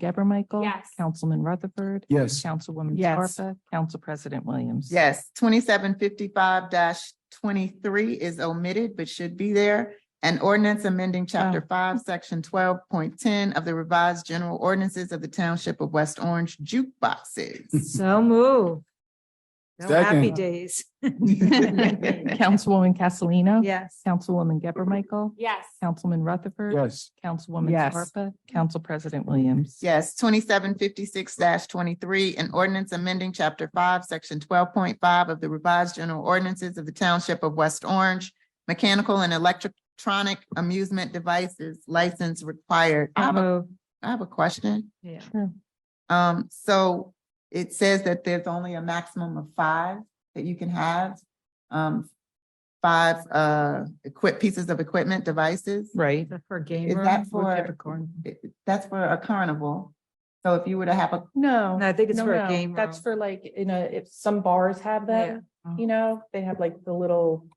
Gabor Michael? Yes. Councilman Rutherford? Yes. Councilwoman Yes. Scarpa? Council President Williams? Yes, twenty-seven fifty-five twenty-three is omitted but should be there. An ordinance amending chapter five, section twelve point ten of the revised general ordinances of the township of West Orange jukeboxes. So move. No happy Second. days. Councilwoman Castellino? Yes. Councilwoman Gabor Michael? Yes. Councilman Rutherford? Yes. Councilwoman Yes. Scarpa? Council President Williams? Yes, twenty-seven fifty-six twenty-three, an ordinance amending chapter five, section twelve point five of the revised general ordinances of the township of West Orange, mechanical and electronic amusement devices license required. I have a- move. I have a question. Yeah. Sure. Um, so it says that there's only a maximum of five that you can have. Um, five, uh, equip, pieces of equipment, devices. Right. For gamer. that for- It- That's for a carnival. So if you were to have a, No. No, I think it's no, for a no. game That's room. for like, you know, if some bars have them, Yeah. you know, they have like the little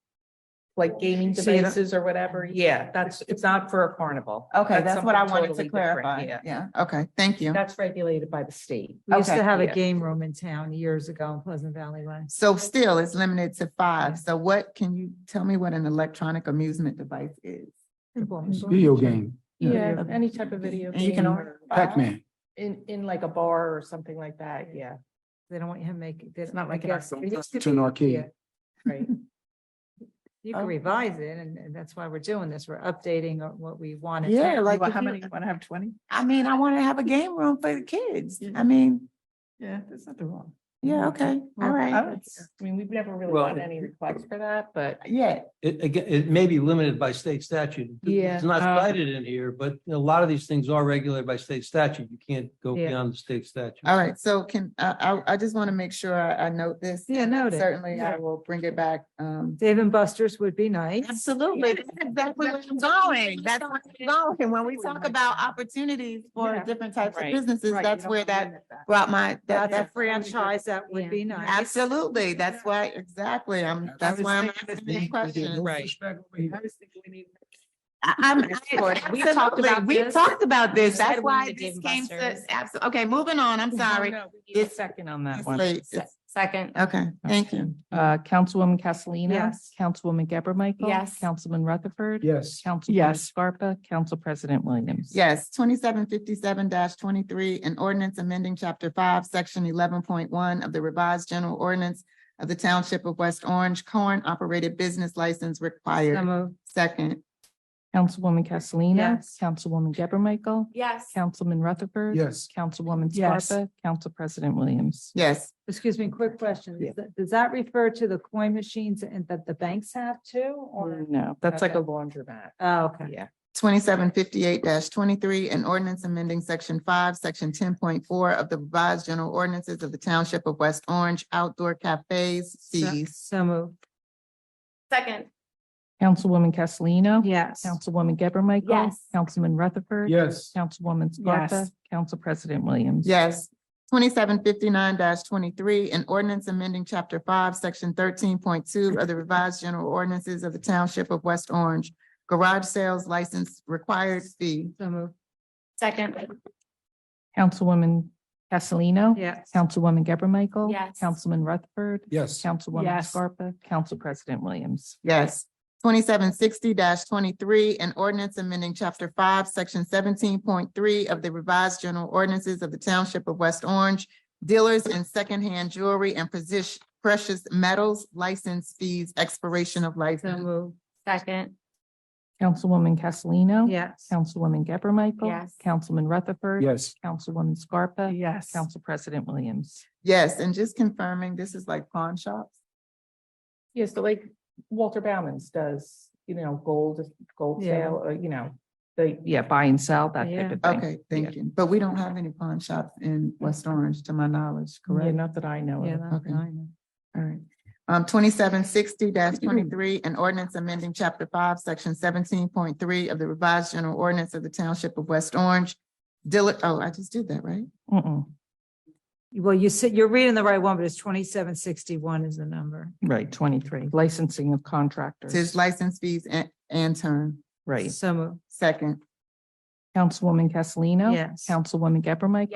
like gaming So you don't- devices or whatever. Yeah, that's, it's not for a carnival. okay, that's what I something wanted totally to different, clarify. yeah. Yeah, okay, thank you. That's regulated by the state. We used to Okay, have a yeah. game room in town years ago in Pleasant Valley Way. So still, it's limited to five. So what, can you tell me what an electronic amusement device is? Video game, Yeah, Yeah. any type of video. And you game can or order file Pac-Man. In, in like a bar or something like that, yeah, They don't want you to make. It's not like an arcade. To an arcade. right. You can Okay. revise it and, and that's why we're doing this. We're updating uh, what we wanted. to- Yeah, like. if How you- many, want to have twenty? I mean, I want to have a game room for the kids. I mean, Yeah, there's nothing wrong. yeah, okay, all right. I mean, we've never really Well, gotten any requests for that, but. Yeah, It, again, it may be limited by state statute. Yeah. It's not Uh, cited in here, but a lot of these things are regulated by state statute. You can't go Yeah. beyond the state statute. all right, so can, I, I, I just want to make sure I, I note this. Yeah, noted. Certainly, I Yeah. will bring it back, um. Dave and Buster's would be nice. Absolutely, That's exactly where I'm going, that's where I'm going, when we talk about opportunities for Yeah. different types of Right. businesses, Right, you that's don't where wanna that limit brought my, that, That's a that. franchise. That would be nice. Absolutely, that's why, exactly, I'm, that's why I'm asking this question. Right. I- I'm, Lord, we talked about, we talked about this, that's why this came to, abso- okay, moving on, I'm sorry. It's- Second on that it's one. late. It's- Second. Okay, thank you. Uh, Councilwoman Castellino. Yes. Councilwoman Gabor Michael. Yes. Councilman Rutherford. Yes. Council. Yes. Scarpa, Council President Williams. Yes, twenty-seven fifty-seven twenty-three, an ordinance amending chapter five, section eleven point one of the revised general ordinance of the Township of West Orange, corn operated business license required. Second, Councilwoman Castellino. Yes. Councilwoman Gabor Michael. Yes. Councilman Rutherford. Yes. Councilwoman Yes. Scarpa, Council President Williams. yes, Excuse me, quick question. Yeah. Does that- Does that refer to the coin machines and that the banks have too? Or, No, that's like Okay. a laundromat. oh, okay. Yeah. twenty-seven fifty-eight twenty-three, an ordinance amending section five, section ten point four of the revised general ordinances of the Township of West Orange, outdoor cafes, So- fees. So moved. Second, Councilwoman Castellino. Yes. Councilwoman Gabor Michael. Yes. Councilman Rutherford. Yes. Councilwoman Scarpa, Yes. Council President Williams. Yes. Twenty-seven fifty-nine twenty-three, an ordinance amending chapter five, section thirteen point two of the revised general ordinances of the township of West Orange. Garage sales license required fee. So moved. second, Councilwoman Castellino. Yes. Councilwoman Gabor Michael. Yes. Councilman Rutherford. Yes. Councilwoman Yes. Scarpa, Council President Williams. Yes. Twenty-seven sixty twenty-three, an ordinance amending chapter five, section seventeen point three of the revised general ordinances of the township of West Orange. Dealers in secondhand jewelry and precious, precious metals, license fees, expiration of So license. moved. second, Councilwoman Castellino. Yes. Councilwoman Gabor Michael. Yes. Councilman Rutherford. Yes. Councilwoman Scarpa. Yes. Council President Williams. Yes, and just confirming, this is like pawn shops? Yes, so like Walter Bowman's does, you know, gold, gold Yeah. sale, or, you know, the. Yeah, buy and sell, that type Yeah. of thing. Okay, thank you. But we don't have any pawn shops in West Orange, to my knowledge, Yeah, correct? not that I know Yeah, of. that's Okay. fine. All right. Um, twenty-seven sixty twenty-three, an ordinance amending chapter five, section seventeen point three of the revised general ordinance of the township of West Orange. Dealer, oh, I just did that, right? Mm-mm, Well, you said, you're reading the right one, but it's twenty-seven sixty-one is the number. right, twenty-three, licensing of Tis contractors, license fees and, and term. right. So moved. Second, Councilwoman Castellino. Yes. Councilwoman Geber Michael.